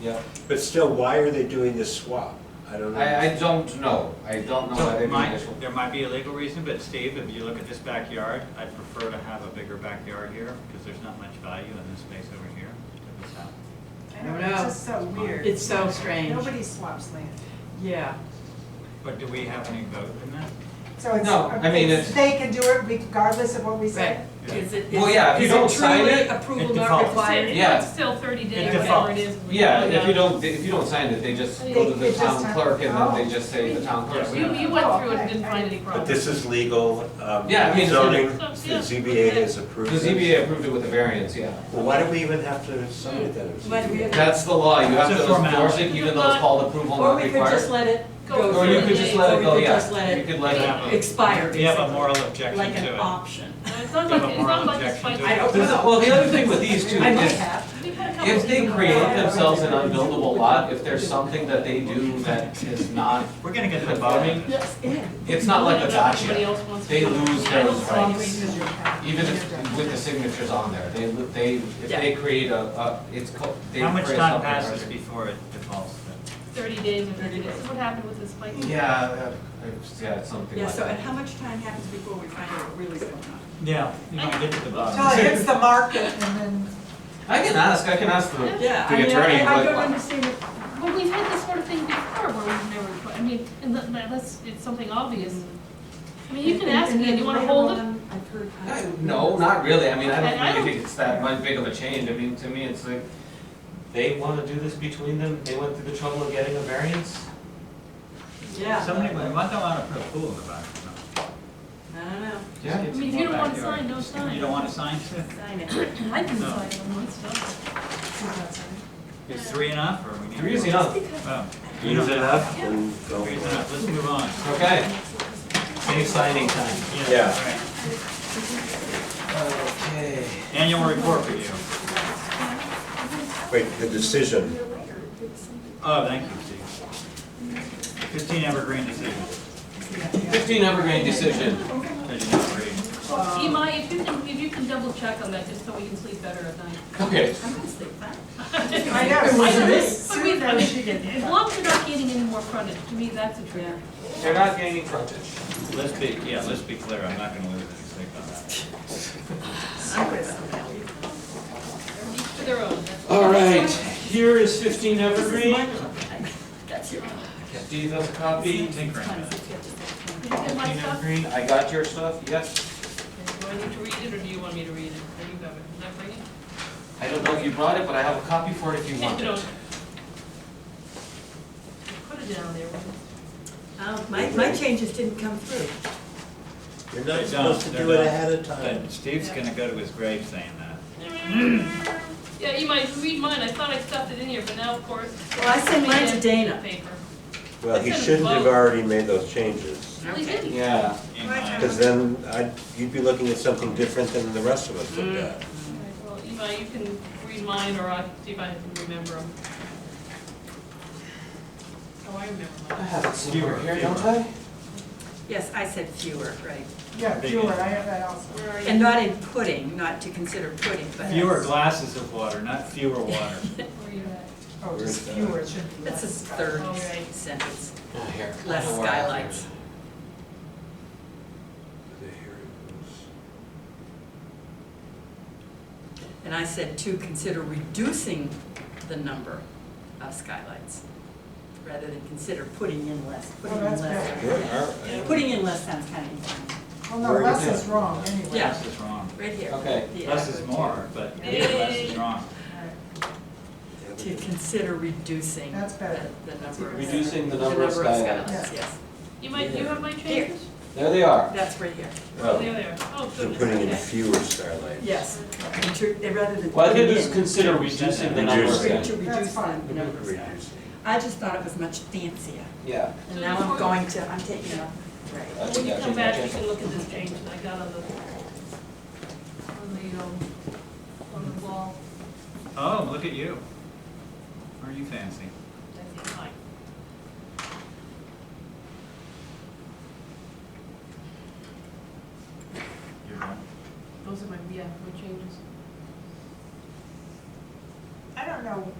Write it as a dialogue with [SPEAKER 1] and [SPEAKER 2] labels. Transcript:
[SPEAKER 1] Yeah,
[SPEAKER 2] But still, why are they doing this swap? I don't
[SPEAKER 1] I,
[SPEAKER 2] know.
[SPEAKER 1] I don't know, I don't know why
[SPEAKER 3] So
[SPEAKER 1] they do
[SPEAKER 3] my,
[SPEAKER 1] this.
[SPEAKER 3] there might be a legal reason, but Steve, if you look at this backyard, I prefer to have a bigger backyard here because there's not much value in this space over here to this house.
[SPEAKER 4] I don't know, it's just so weird.
[SPEAKER 5] It's so strange.
[SPEAKER 4] Nobody swaps land.
[SPEAKER 5] Yeah,
[SPEAKER 3] But do we have any vote in that?
[SPEAKER 4] So it's,
[SPEAKER 1] No, I mean, it's-
[SPEAKER 4] they can do it regardless of what we
[SPEAKER 5] right.
[SPEAKER 4] say.
[SPEAKER 5] Is it,
[SPEAKER 1] Well, yeah, if you
[SPEAKER 5] is
[SPEAKER 1] don't
[SPEAKER 5] it
[SPEAKER 1] sign
[SPEAKER 5] truly
[SPEAKER 1] it,
[SPEAKER 3] it
[SPEAKER 5] approval not
[SPEAKER 3] defaults.
[SPEAKER 5] required?
[SPEAKER 1] Yeah.
[SPEAKER 6] It's still thirty
[SPEAKER 3] It
[SPEAKER 6] days, whatever it
[SPEAKER 3] defaults.
[SPEAKER 6] is. we
[SPEAKER 1] Yeah,
[SPEAKER 5] Oh,
[SPEAKER 6] voted
[SPEAKER 1] if you
[SPEAKER 6] on.
[SPEAKER 1] don't, if you don't sign it, they just go to
[SPEAKER 4] They-
[SPEAKER 1] the
[SPEAKER 4] they
[SPEAKER 1] town
[SPEAKER 4] just-
[SPEAKER 1] clerk and then they
[SPEAKER 4] oh.
[SPEAKER 1] just say the town clerk.
[SPEAKER 6] You,
[SPEAKER 1] said-
[SPEAKER 6] you went through it and didn't find any
[SPEAKER 2] But
[SPEAKER 6] problems.
[SPEAKER 2] this is legal, um,
[SPEAKER 1] Yeah, I mean, so-
[SPEAKER 2] zoning, the
[SPEAKER 6] So, yeah.
[SPEAKER 2] ZBA has
[SPEAKER 1] The
[SPEAKER 2] approved this.
[SPEAKER 1] ZBA approved it with a variance, yeah.
[SPEAKER 2] Well, why do we even have to sign it then? if it's
[SPEAKER 5] But we
[SPEAKER 2] ZBA?
[SPEAKER 5] have-
[SPEAKER 1] That's the law, you have
[SPEAKER 3] It's
[SPEAKER 1] to
[SPEAKER 3] a
[SPEAKER 1] enforce
[SPEAKER 3] formality.
[SPEAKER 1] it even though it's called approval
[SPEAKER 5] Or
[SPEAKER 1] not
[SPEAKER 5] we could just
[SPEAKER 1] required.
[SPEAKER 5] let it
[SPEAKER 6] Go
[SPEAKER 5] go
[SPEAKER 1] Or you
[SPEAKER 5] through the
[SPEAKER 1] could just let it
[SPEAKER 5] or
[SPEAKER 1] go,
[SPEAKER 5] we could just
[SPEAKER 1] yeah.
[SPEAKER 5] let
[SPEAKER 1] You
[SPEAKER 5] it
[SPEAKER 1] could let it,
[SPEAKER 3] Yeah.
[SPEAKER 5] expire,
[SPEAKER 3] We have a
[SPEAKER 5] basically,
[SPEAKER 3] moral objection
[SPEAKER 5] like an
[SPEAKER 3] to it.
[SPEAKER 5] option.
[SPEAKER 6] Uh, It's not
[SPEAKER 3] You have
[SPEAKER 6] like,
[SPEAKER 3] a
[SPEAKER 6] it's
[SPEAKER 3] moral
[SPEAKER 6] not like it's
[SPEAKER 3] objection to
[SPEAKER 6] like.
[SPEAKER 5] I don't
[SPEAKER 1] This-
[SPEAKER 5] know.
[SPEAKER 1] well, the other thing with these two
[SPEAKER 5] I might
[SPEAKER 1] is,
[SPEAKER 5] have.
[SPEAKER 6] We've had a couple
[SPEAKER 1] if they
[SPEAKER 6] people-
[SPEAKER 1] create themselves an unbuildable lot, if there's something that they do that is not,
[SPEAKER 3] We're gonna get to the bottom.
[SPEAKER 5] Yes, yeah.
[SPEAKER 1] it's not like a
[SPEAKER 6] Everybody
[SPEAKER 1] gotcha.
[SPEAKER 6] else wants to-
[SPEAKER 1] They lose
[SPEAKER 6] I don't
[SPEAKER 1] those
[SPEAKER 6] follow
[SPEAKER 1] rights.
[SPEAKER 6] you.
[SPEAKER 1] Even if, with the signatures on there, they, they, if
[SPEAKER 5] Yeah.
[SPEAKER 1] they create a, a, it's called, they create something.
[SPEAKER 3] How much time passes
[SPEAKER 1] artificial.
[SPEAKER 3] before it defaults then?
[SPEAKER 6] Thirty days of it, this is what happened with this bike.
[SPEAKER 1] Yeah, uh, that- it's- yeah, it's something
[SPEAKER 5] Yeah,
[SPEAKER 1] like
[SPEAKER 5] so and
[SPEAKER 1] that.
[SPEAKER 5] how much time happens before we find out what really is going on?
[SPEAKER 3] Yeah, you might get to the
[SPEAKER 4] Till
[SPEAKER 3] bottom.
[SPEAKER 4] it hits the market and then.
[SPEAKER 1] I can ask, I can ask the,
[SPEAKER 5] Yeah,
[SPEAKER 1] the
[SPEAKER 5] I mean, I-
[SPEAKER 1] attorney,
[SPEAKER 5] I
[SPEAKER 1] but
[SPEAKER 5] don't understand it.
[SPEAKER 6] But we've had this sort of thing before where we've never, put- I mean, unless- unless it's something obvious. I mean, you can ask me, do you wanna hold it?
[SPEAKER 5] I've heard.
[SPEAKER 1] I- no, not really, I mean, I
[SPEAKER 6] I- I
[SPEAKER 1] don't
[SPEAKER 6] don't-
[SPEAKER 1] really think it's that much big of a change, I mean, to me, it's like, they wanna do this between them, they went through the trouble of getting a variance?
[SPEAKER 3] Somebody
[SPEAKER 5] Yeah,
[SPEAKER 3] might, might not wanna put a pool in the back. you know.
[SPEAKER 5] I don't know,
[SPEAKER 1] Yeah.
[SPEAKER 6] I mean, if you don't wanna sign, no sign.
[SPEAKER 3] You don't wanna sign to?
[SPEAKER 5] sign it.
[SPEAKER 6] I can
[SPEAKER 3] No.
[SPEAKER 6] sign on one stuff.
[SPEAKER 3] Is three enough or we need?
[SPEAKER 1] Three is
[SPEAKER 3] more?
[SPEAKER 1] enough,
[SPEAKER 3] Oh, you
[SPEAKER 2] Use
[SPEAKER 3] don't-
[SPEAKER 2] it up and go.
[SPEAKER 3] Three is enough, let's move on.
[SPEAKER 1] okay. Save signing time.
[SPEAKER 2] Yeah.
[SPEAKER 3] all right.
[SPEAKER 1] Okay.
[SPEAKER 3] Annual report for you.
[SPEAKER 2] Wait, the decision,
[SPEAKER 3] Oh, thank you, Steve. Fifteen Evergreen decision.
[SPEAKER 1] Fifteen Evergreen decision,
[SPEAKER 3] I did not read.
[SPEAKER 1] Um,
[SPEAKER 6] Imai, if you can, if you can double check on that, just so we can sleep better at night.
[SPEAKER 1] okay,
[SPEAKER 5] I'm gonna sleep fine.
[SPEAKER 4] I know, so
[SPEAKER 6] I-
[SPEAKER 4] this
[SPEAKER 6] I
[SPEAKER 4] soon,
[SPEAKER 6] mean,
[SPEAKER 4] though, she can-
[SPEAKER 6] As long as you're not getting any more frontage, to me, that's a trigger.
[SPEAKER 1] they're not gaining frontage.
[SPEAKER 3] Let's be, yeah, let's be clear, I'm not gonna lose any sleep on that.
[SPEAKER 6] Each to their own. that's-
[SPEAKER 1] All right, here is fifteen Evergreen.
[SPEAKER 5] That's your.
[SPEAKER 1] Steve has a copy.
[SPEAKER 3] Be tinkering with it.
[SPEAKER 6] Did you get my
[SPEAKER 1] Fifteen
[SPEAKER 6] stuff?
[SPEAKER 1] Evergreen, I got your stuff, yes.
[SPEAKER 6] Do I need to read it, or do you want me to read it? Or you have it? Did I bring it?
[SPEAKER 1] I don't know if you brought it, but I have a copy for it if you want
[SPEAKER 6] No.
[SPEAKER 1] it.
[SPEAKER 6] Put it down there.
[SPEAKER 5] Oh, my, my changes didn't come through.
[SPEAKER 2] you're
[SPEAKER 3] They
[SPEAKER 2] not
[SPEAKER 3] don't,
[SPEAKER 2] supposed to
[SPEAKER 3] they're
[SPEAKER 2] do it
[SPEAKER 3] not.
[SPEAKER 2] ahead of time.
[SPEAKER 3] But Steve's gonna go to his grave saying that.
[SPEAKER 6] Yeah, you might read mine. I thought I stuffed it in here, but now, of course.
[SPEAKER 5] Well, I sent mine to Dana.
[SPEAKER 6] Paper.
[SPEAKER 2] Well, he shouldn't have already made those changes,
[SPEAKER 6] Really didn't.
[SPEAKER 1] Yeah,
[SPEAKER 3] In
[SPEAKER 4] Right.
[SPEAKER 3] my-
[SPEAKER 2] because then I'd, you'd be looking at something different than the rest of
[SPEAKER 6] Mm.
[SPEAKER 2] us looked at.
[SPEAKER 6] Alright, Well, Eva, you can read mine, or I can see if I can remember them. Oh, I remember
[SPEAKER 1] I
[SPEAKER 6] mine.
[SPEAKER 1] have it somewhere
[SPEAKER 3] Fewer,
[SPEAKER 1] here,
[SPEAKER 3] fewer.
[SPEAKER 1] don't I?
[SPEAKER 5] Yes, I said fewer, right.
[SPEAKER 4] Yeah, fewer, I have that also.
[SPEAKER 6] Where are you?
[SPEAKER 5] And not in pudding, not to consider pudding, but.
[SPEAKER 3] Fewer glasses of water, not fewer water.
[SPEAKER 6] Where are you at?
[SPEAKER 4] Oh,
[SPEAKER 2] Where's
[SPEAKER 4] just
[SPEAKER 2] that?
[SPEAKER 4] fewer, it shouldn't be.
[SPEAKER 5] That's his
[SPEAKER 4] less.
[SPEAKER 5] third
[SPEAKER 6] All right.
[SPEAKER 5] sentence.
[SPEAKER 1] Oh, here. I
[SPEAKER 5] Less
[SPEAKER 1] know where I have it.
[SPEAKER 5] skylights.
[SPEAKER 2] The hearing
[SPEAKER 5] And I said to consider reducing the number of skylights, rather than consider putting in less, putting in
[SPEAKER 4] that's
[SPEAKER 5] less.
[SPEAKER 2] was- Where are-
[SPEAKER 5] Yeah, Putting in less sounds kind of inconvenient.
[SPEAKER 4] Well, no,
[SPEAKER 2] Where is
[SPEAKER 4] less
[SPEAKER 2] that?
[SPEAKER 4] is wrong anyway.
[SPEAKER 5] Yeah.
[SPEAKER 3] Less is wrong.
[SPEAKER 5] Right here.
[SPEAKER 1] Okay,
[SPEAKER 5] The
[SPEAKER 3] Less is
[SPEAKER 5] adverb
[SPEAKER 3] more, but less is wrong.
[SPEAKER 5] To to consider reducing
[SPEAKER 4] That's better.
[SPEAKER 5] the the number of.
[SPEAKER 1] reducing the
[SPEAKER 5] the
[SPEAKER 1] number of skylights.
[SPEAKER 5] skylights, yes.
[SPEAKER 6] You might, you have my
[SPEAKER 5] Here.
[SPEAKER 6] changes?
[SPEAKER 1] There they are.
[SPEAKER 5] That's right here,
[SPEAKER 6] Oh,
[SPEAKER 2] Oh,
[SPEAKER 6] There they are. Oh,
[SPEAKER 2] so
[SPEAKER 6] goodness.
[SPEAKER 2] putting in
[SPEAKER 6] okay.
[SPEAKER 2] fewer starlights.
[SPEAKER 5] yes. Inter- Rather than.
[SPEAKER 1] Well, I think
[SPEAKER 5] putting
[SPEAKER 1] it's
[SPEAKER 5] in,
[SPEAKER 1] consider reducing the number of
[SPEAKER 2] Reduce.
[SPEAKER 5] re-
[SPEAKER 1] skylights.
[SPEAKER 5] To reduce
[SPEAKER 4] That's
[SPEAKER 5] the
[SPEAKER 4] fine.
[SPEAKER 5] number of skylights.
[SPEAKER 2] Reduce.
[SPEAKER 5] I just thought it was much fancier,
[SPEAKER 1] Yeah.
[SPEAKER 6] So
[SPEAKER 5] and now
[SPEAKER 6] before-
[SPEAKER 5] I'm going to, I'm taking up. Right.
[SPEAKER 1] I
[SPEAKER 6] When
[SPEAKER 1] think
[SPEAKER 6] you
[SPEAKER 1] I
[SPEAKER 6] come
[SPEAKER 1] changed my
[SPEAKER 6] back, you
[SPEAKER 1] change.
[SPEAKER 6] can look at this change that I got on the, on the, um, on the wall.
[SPEAKER 3] Oh, look at you. Are you fancy?
[SPEAKER 6] That's fine.
[SPEAKER 3] You're one.
[SPEAKER 6] Those are my, yeah, my changes.
[SPEAKER 4] I don't know